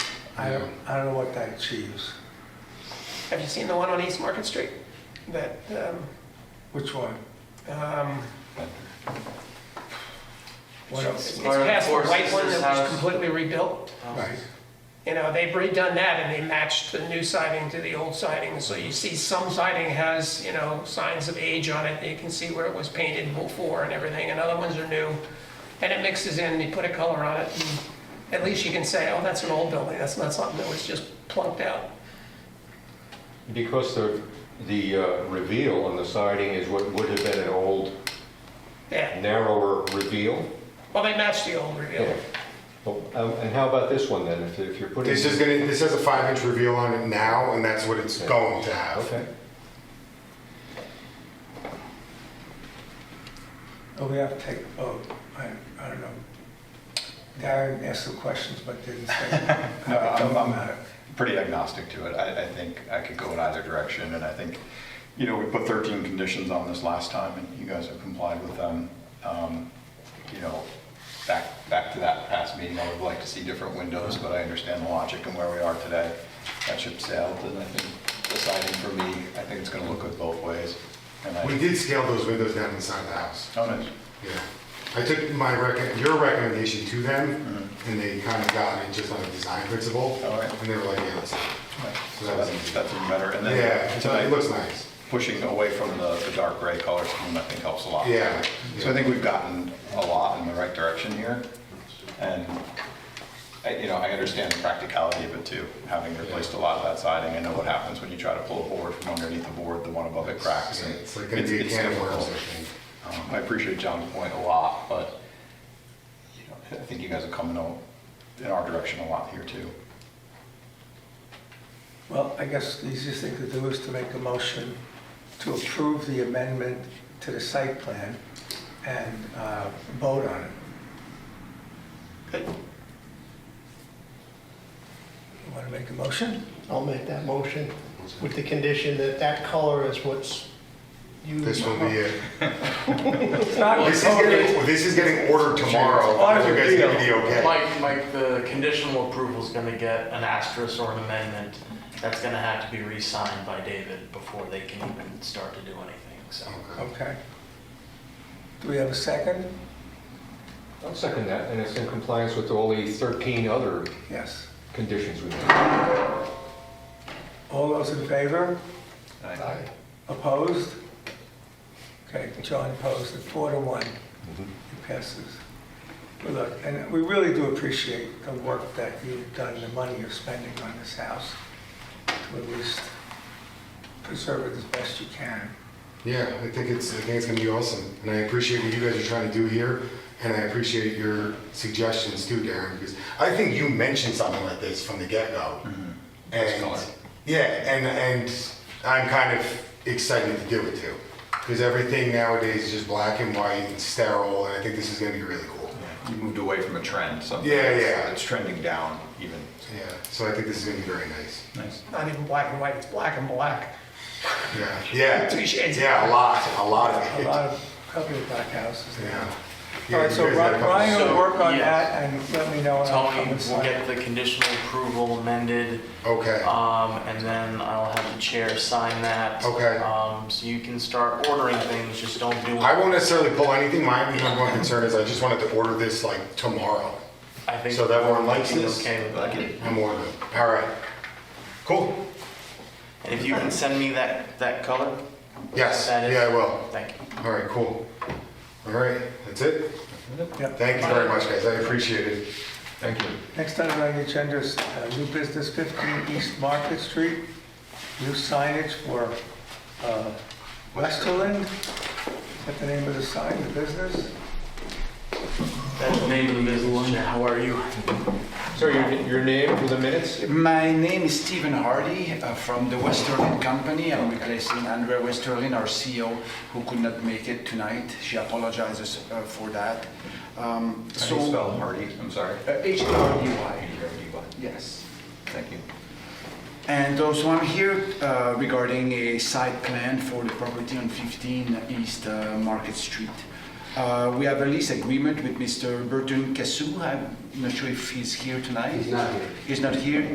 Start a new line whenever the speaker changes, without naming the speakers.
I don't, I don't know what that achieves.
Have you seen the one on East Market Street? That, um,
Which one?
um,
What
it's
else?
it's
Part of
past the
Four
white one
Sisters
that was
House.
completely rebuilt.
Right.
You know, they've redone that and they matched the new siding to the old siding. So you see some siding has, you know, signs of age on it. You can see where it was painted before and everything, and other ones are new. And it mixes in, you put a color on it, and at least you can say, oh, that's an old building. That's not something that was just plunked out.
Because the, the uh, reveal on the siding is what would have been an old
Yeah,
narrower reveal.
well, they matched the old reveal.
Yeah. Well, um, And how about this one then, if if you're putting?
This is gonna, this has a five inch reveal on it now, and that's what it's going to have.
Okay.
Oh, we have to take a vote. I, I don't know. Darren asked some questions but didn't say.
No, I'm,
Don't
I'm
matter.
pretty agnostic to it. I, I think I could go in either direction, and I think, you know, we put 13 conditions on this last time, and you guys have complied with them. Um, You know, back, back to that past meeting, I would like to see different windows, but I understand the logic and where we are today. That ship sailed, and I think deciding for me, I think it's gonna look good both ways. And I,
We did scale those windows down inside the house.
oh, nice.
Yeah. I took my rec, your recommendation to them, and they kind of got it just on a design principle.
Mm-hmm. All right.
And they were like, yeah, let's,
So that's, that's even better. And
yeah,
then
it's- uh, it
tonight,
looks nice.
pushing away from the, the dark gray color scheme, I think helps a lot.
Yeah.
So I think we've gotten a lot in the right direction here. And, I- you know, I understand the practicality of it too, having replaced a lot of that siding. I know what happens when you try to pull a board from underneath the board, the one above it cracks.
Yeah,
and
It's like gonna be a
it's
can of worms, I
difficult.
think.
Um, I appreciate John's point a lot, but, you know, I think you guys are coming out in our direction a lot here too.
Well, I guess the easiest thing to do is to make a motion to approve the amendment to the site plan and uh, vote on it.
Good.
You want to make a motion?
I'll make that motion with the condition that that color is what's used.
This will be it.
It's not
This is getting, this is getting ordered tomorrow.
Auto
You guys give me the
reveal.
okay.
Mike, Mike, the conditional approval's gonna get an asterisk or an amendment. That's gonna have to be re-signed by David before they can even start to do anything, so.
Okay. Do we have a second?
I'll second that, and it's in compliance with all the 13 other
Yes.
conditions we made.
All those in favor? Opposed? Okay, John opposed, at four to one,
Mm-hmm.
it passes. Well, Look, and we really do appreciate the work that you've done, the money you're spending on this house, to at least preserve it as best you can.
Yeah, I think it's, I think it's gonna be awesome, and I appreciate what you guys are trying to do here, and I appreciate your suggestions too, Darren, because I think you mentioned something like this from the get-go.
Mm-hmm.
That's
And,
color.
yeah, and, and I'm kind of excited to do it too, because everything nowadays is just black and white and sterile, and I think this is gonna be really cool.
You moved away from a trend, so.
Yeah, yeah.
It's trending down even.
Yeah, so I think this is gonna be very nice.
Nice.
Not even black and white, it's black and black.
Yeah, yeah.
Two shades.
Yeah, a lot, a lot of
A
it.
lot of, couple of black houses there.
Yeah.
All right, so
You guys got a couple-
Ryan will
So,
work on
yeah.
that and let me know. and I'll
Tony
come and
will
sign
get the conditional approval amended,
Okay.
um, and then I'll have the chair sign that.
Okay.
Um, so you can start ordering things, just don't do
I
it.
won't necessarily pull anything. My number one concern is I just wanted to order this like tomorrow.
I think
So that one likes
Mike is
this?
Okay with
Like
that.
it.
I'm ordering. All right. Cool.
And if you can send me that, that color?
Yes.
That is-
Yeah, I will.
Thank you.
All right, cool. All right, that's it.
Yep.
Thank you very much, guys. I appreciate it.
Thank you.
Next item on the agenda is uh, new business 15 East Market Street, new signage for uh, Westerland. Is that the name of the sign, the business?
That's the name of the business, Chair. how are you?
Sir, your- your name for the minutes?
My name is Stephen Hardy uh, from the Westerlin Company. I'm replacing Andrea Westerlin, our CEO, who could not make it tonight. She apologizes uh, for that. Um,
How do
so-
you spell Hardy? I'm sorry.
Uh, H-A-R-D-Y,
H-A-R-D-Y.
yes.
Thank you.
And also, I'm here uh, regarding a site plan for the property on 15 East uh, Market Street. Uh, We have a lease agreement with Mr. Burton Cassou. I'm not sure if he's here tonight. He's not here. He's not here.